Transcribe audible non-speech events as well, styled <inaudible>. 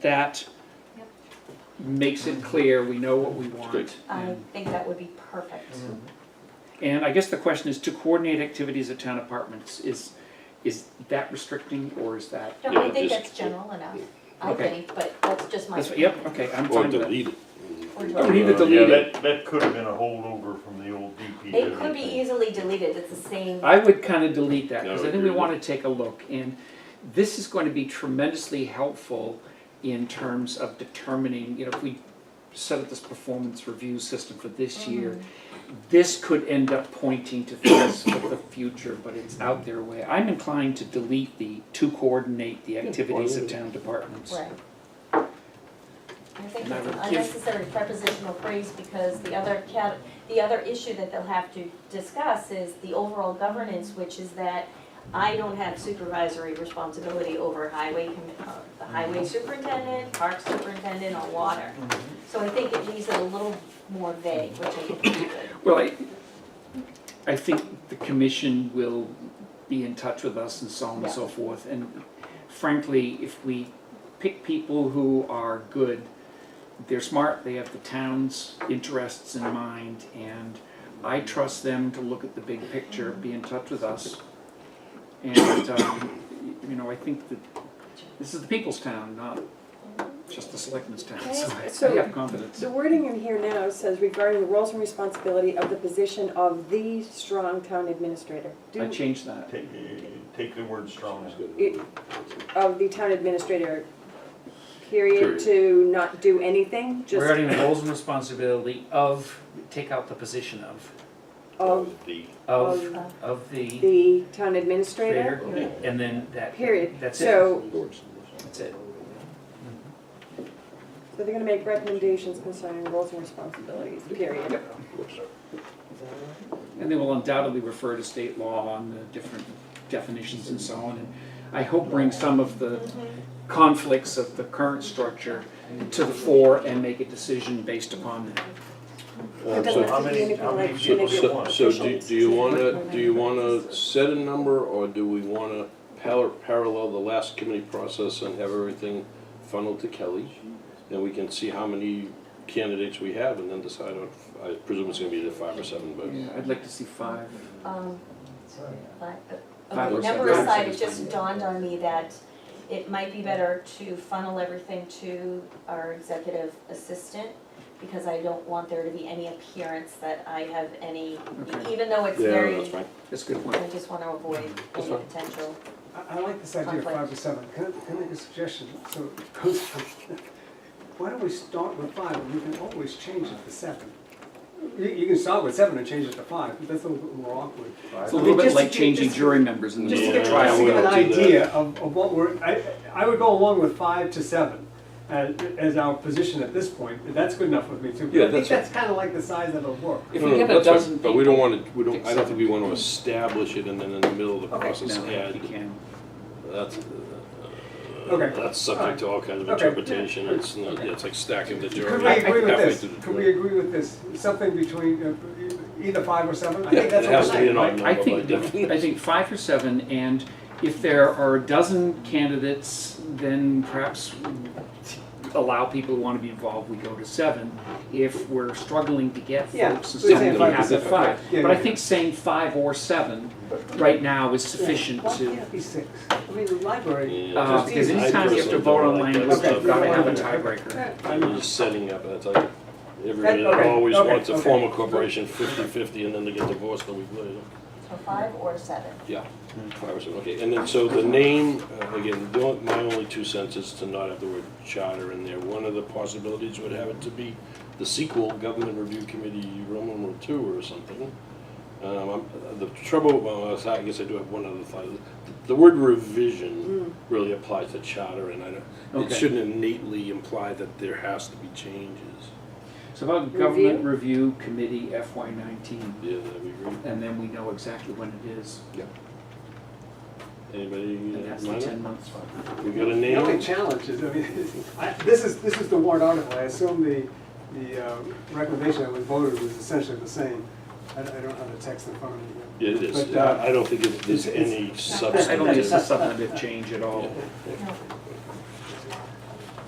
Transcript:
that Yep. makes it clear, we know what we want. Great. I And- think that would be perfect. And I guess the question is, to coordinate activities at town apartments, is, is that restricting or is that? No, Yeah, I think just- that's general enough, I Okay. think, but that's just my. That's, yep, okay, I'm Or fine with that. delete it. Or We need to Uh, delete Yeah, it. that, that could have been a holdover from the old DPW. It could be thing. easily deleted, it's the same, I would kind of delete that, because No, I think we agree. want to take a look. And this is going to be tremendously helpful in terms of determining, you know, if we set up this performance review system for this year, this could end up pointing to things for the future, but it's out there way. I'm inclined to delete the, to coordinate the activities of town departments. right. I think And I it's an would give- unnecessary prepositional phrase because the other cat, the other issue that they'll have to discuss is the overall governance, which is that I don't have supervisory responsibility over highway, com- uh, the Mm-hmm. highway superintendent, park superintendent, or water. Mm-hmm. So I think it leaves it a little more vague, which I think is good. Well, I, I think the commission will be in touch with us and so on and so forth. And frankly, if we pick people who are good, they're smart, they have the town's interests in mind, and I trust them to look at the big picture, be in touch with us. And, um, you know, I think that this is the people's town, not just the selectmen's Can town, I so ask- I- I so- have confidence. The wording in here now says regarding the roles and responsibility of the position of the strong town administrator. Do- I changed that. Take, uh, take the word strong out. It- Of the town administrator, Period. period, to not do anything, just Regarding the roles and responsibility of, take out the position of, um, of The- of, Of- of the Oh, the town administrator. creator, and then that. Period. That's it, So, that's it. so they're gonna make recommendations concerning roles and responsibilities, period. And they will undoubtedly refer to state law on the different definitions and so on. And I hope bring some of the conflicts of the current structure to the fore and make a decision based upon that. Uh, It so- doesn't how have to be many- anything how many like people- make it So, so do, do you wanna, official. do you wanna set a number, or do we wanna par- parallel the last committee process and have everything funneled to Kelly? And we can see how many candidates we have and then decide on, I presume it's gonna be the five or seven, but. Yeah, I'd like to see five. Um, but, Five okay, or number seven. aside, it just dawned on me that it might be better to funnel everything to our executive assistant, because I don't want there to be any appearance that I have any, Okay. even though it's Yeah, very, that's fine. That's a good point. I just wanna avoid That's any fine. potential. I, I like this idea of five to seven. Can, I- can I make a suggestion? So <laughs> it goes from, why don't we start with five and we can always change it to seven? You, you can start with seven and change it to five, but that's a little bit more awkward. It's a little bit Just to like get- changing just- jury members in the Just to middle Yeah, of get, a trial. just to we get an don't do that. idea of, of what we're, I, I would go along with five to seven as, as our position at this point. That's good enough with me too. but Yeah, I think that's- that's kind of like the size of the work. If No, we no, get a that's fine, dozen But we don't people- wanna, we don't, I don't Except- think we wanna establish it and then in the middle of the Okay, process No, add, you can. that's, uh, Okay. that's subject to all kinds of Okay. interpretation, it's not, yeah, it's like stacking the jury. Could we agree with halfway this? through the Could jury. we agree with this? Something between uh, either five or seven? I Yeah, think that's it what has to be I- an odd I number by think, definition. I think five or seven, and if there are a dozen candidates, then perhaps allow people who want to be involved, we go to seven. If we're struggling to get Yeah, folks, and we say something we five have is at okay. five. Yeah, But I yeah. think saying five or seven right now is sufficient Why to, can't it be six? I mean, the library. Yeah, uh, just- because I anytime you have to personally vote on don't like that language, stuff. you've got to have a Okay. tiebreaker. I'm just setting up, that's like, everybody okay, always okay, wants to okay. form a corporation 50/50 and then they get divorced a week later. So five or seven? Yeah, five or seven, okay, and then, so the name, uh, again, the only- my only two cents is to not have the word charter in there. One of the possibilities would have it to be the sequel, Government Review Committee, Roman numeral two or something. Um, I'm- The trouble, well, I guess I do have one other thought, the word revision really applies to charter, and I don't, it Okay. shouldn't innately imply that there has to be changes. So about Government Review Committee FY nineteen, Yeah, that we agree. and then we know exactly when it is, Anybody, and uh, that's the ten mind? months. we got a The only name? challenge is, I mean, <laughs> I- this is, this is the warrant article. I assume the, the uh, recommendation that was voted was essentially the same. I I don't have the text in front of me. Yeah, It is, But, uh, I I don't think it- there's it's- any I don't think it's substantive. a substantive change at all. No.